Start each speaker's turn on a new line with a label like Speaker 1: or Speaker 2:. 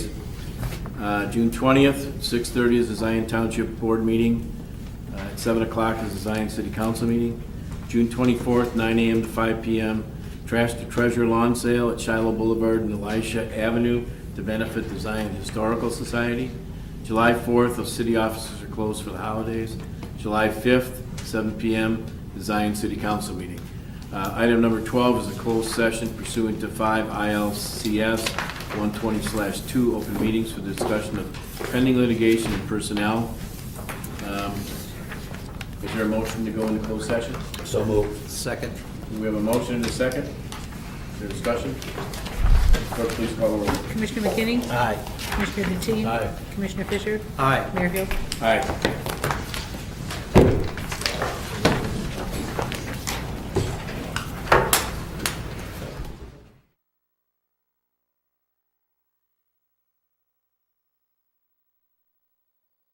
Speaker 1: Uh, June 20th, 6:30 is the Zion Township Board meeting. Uh, At 7 o'clock is the Zion City Council meeting. June 24th, 9 a.m. to 5 p.m., Trash to Treasure Lawn Sale at Shiloh Boulevard and Elisha Avenue to benefit the Zion Historical Society. July 4th, the city offices are closed for the holidays. July 5th, 7 p.m., the Zion City Council meeting. Uh, Item number 12 is a closed session pursuant to 5 ILCS 120/2 open meetings for discussion of pending litigation and personnel. Um, Is there a motion to go into closed session?
Speaker 2: So moved. Second.
Speaker 1: We have a motion and a second. Is there discussion? Clerk, please call the roll.
Speaker 3: Commissioner McKinney?
Speaker 2: Aye.
Speaker 3: Commissioner Deteen?
Speaker 1: Aye.
Speaker 3: Commissioner Fisher?
Speaker 2: Aye.
Speaker 3: Mayor Hill?
Speaker 1: Aye.